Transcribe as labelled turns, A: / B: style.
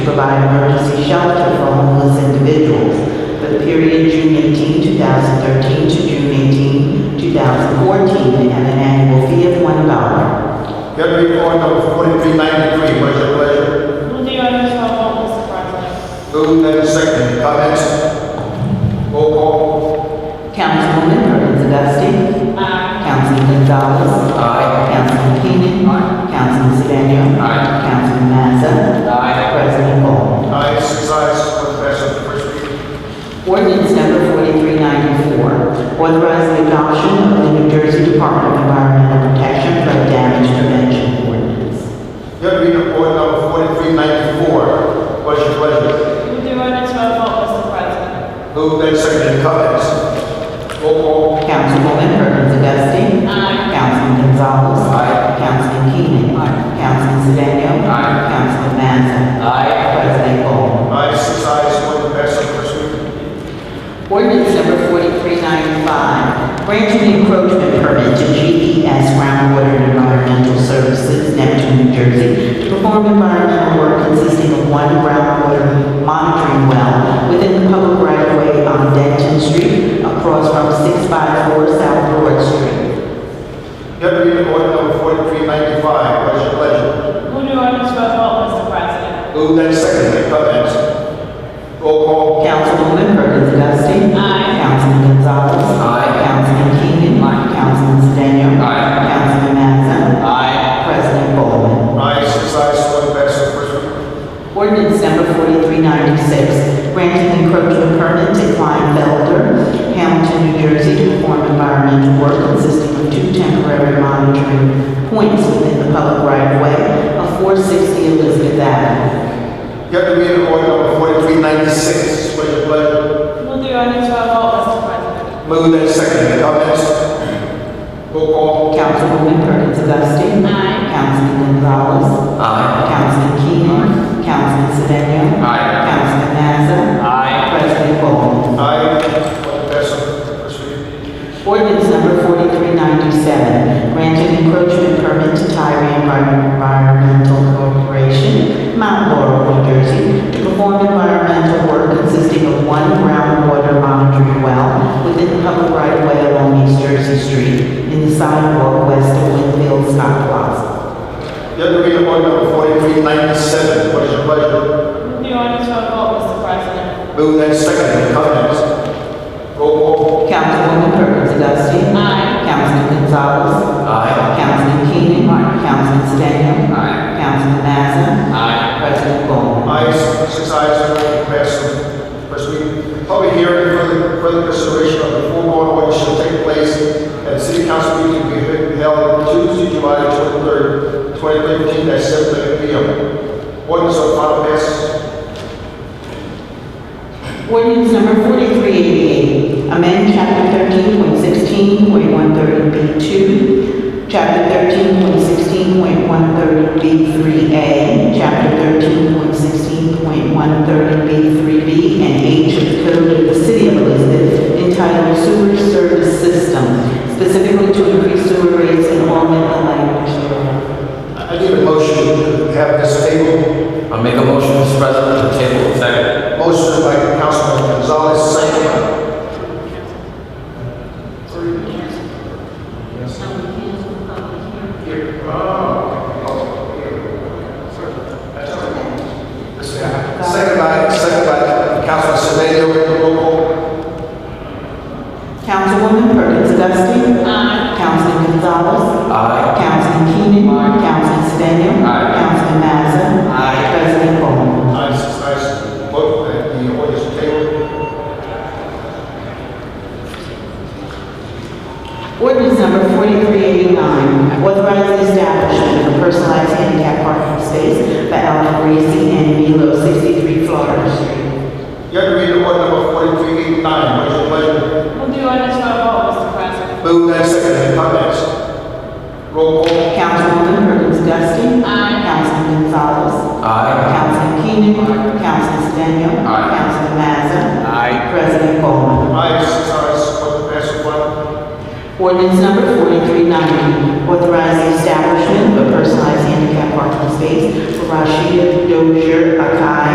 A: to provide emergency shelter for homeless individuals for the period June 18, 2013 to June 18, 2014, at an annual fee of $1.
B: Hearing report number forty-three ninety-three, what is your pleasure?
C: Move the item to our vote, Mr. President.
B: Move and second, comments? Roll call.
A: Councilwoman Perkins Dusting.
C: Aye.
A: Councilman Gonzalez. Aye. Councilman Keenan. Aye. Councilman Sedan. Aye. Councilman Mazza. Aye. President Ball.
B: Aye, six ayes, one absent, the first reading.
A: Ordinance number 4394, authorizing adoption of the New Jersey Department of Environmental Protection flood damage prevention ordinance.
B: Hearing report number forty-three ninety-four, what is your pleasure?
C: Move the item to our vote, Mr. President.
B: Move and second, comments? Roll call.
A: Councilwoman Perkins Dusting.
C: Aye.
A: Councilman Gonzalez. Aye. Councilman Keenan. Aye. Councilman Sedan. Aye. Councilman Mazza. Aye. President Ball.
B: Aye, six ayes, one absent, the first reading.
A: Ordinance number 4395, granting encroachment permit to GPS Groundwater and Environmental Services, Neptune, New Jersey, to perform environmental work consisting of one groundwater monitoring well within the public right-of-way on Denton Street across from 654 South Broad Street.
B: Hearing report number forty-three ninety-five, what is your pleasure?
C: Move the item to our vote, Mr. President.
B: Move and second, comments? Roll call.
A: Councilwoman Perkins Dusting.
C: Aye.
A: Councilman Gonzalez. Aye. Councilman Keenan. Aye. Councilman Sedan. Aye. Councilman Mazza. Aye. President Ballmer.
B: Aye, six ayes, one absent, the first reading.
A: Ordinance number 4396, granting encroachment permit to Klein Felder, Hamilton, New Jersey, to perform environmental work consisting of two temporary monitoring points within the public right-of-way of 460 Elizabeth Avenue.
B: You have to read the order number forty-three ninety-six, what is your pleasure?
C: Move the item to our vote, Mr. President.
B: Move that second, any comments? Roll call.
A: Councilwoman Perkins Dusting.
C: Aye.
A: Councilman Gonzalez. Aye. Councilman Keenan. Councilman Sedan. Aye. Councilman Mazza. Aye. President Ball.
B: Aye, one absent, first reading.
A: Ordinance number 4397, granting encroachment permit to Tyree Envi- Environmental Corporation, Mount Laurel, New Jersey, to perform environmental work consisting of one groundwater monitoring well within the public right-of-way along East Jersey Street in the sidewalk west of Winfield Stock Plaza.
B: You have to read the order number forty-three ninety-seven, what is your pleasure?
C: Move the item to our vote, Mr. President.
B: Move that second, any comments? Roll call.
A: Councilwoman Perkins Dusting.
C: Aye.
A: Councilman Gonzalez.
B: Aye.
A: Councilman Keenan. Councilman Sedan. Aye. Councilman Mazza. Aye. President Ball.
B: Ayes, six ayes, one absent, first reading. Public hearing for the, for the consideration of the foregoing ordinance shall take place at the city council meeting to be held Tuesday, July twenty-third, twenty fifteen, at seven thirty P M. Ordinance on final passage.
A: Ordinance number 4388, amend chapter 13.16.130B2, chapter 13.16.130B3A, chapter 13.16.130B3B, and H of the Code of the City of Elizabeth entitled Sewer Service System, specifically to increase sewer rates and augment the language thereof.
B: I I need a motion to have this table.
D: I make a motion, Mr. President, to table. Second.
B: Motion by Councilman Gonzalez, second by Second by, second by Councilman Sedan, roll call.
A: Councilwoman Perkins Dusting.
C: Aye.
A: Councilman Gonzalez.
D: Aye.
A: Councilman Keenan. Councilman Sedan.
D: Aye.
A: Councilman Mazza.
D: Aye.
A: President Ball.
B: Ayes, six ayes, vote, that the ordinance is tabled.
A: Ordinance number 4389, authorizing establishment of personalized handicap parking space for Alvin Gracie and Milo 63 Florida Street.
B: You have to read the order number forty-three eighty-nine, what is your pleasure?
C: Move the item to our vote, Mr. President.
B: Move and second, any comments? Roll call.
A: Councilwoman Perkins Dusting.
C: Aye.
A: Councilman Gonzalez.
D: Aye.
A: Councilman Keenan. Councilman Sedan.
D: Aye.
A: Councilman Mazza.
D: Aye.
A: President Ball.
B: Ayes, six ayes, one absent, one.
A: Ordinance number 4390, authorizing establishment of a personalized handicap parking space for Rashida Dozier Akai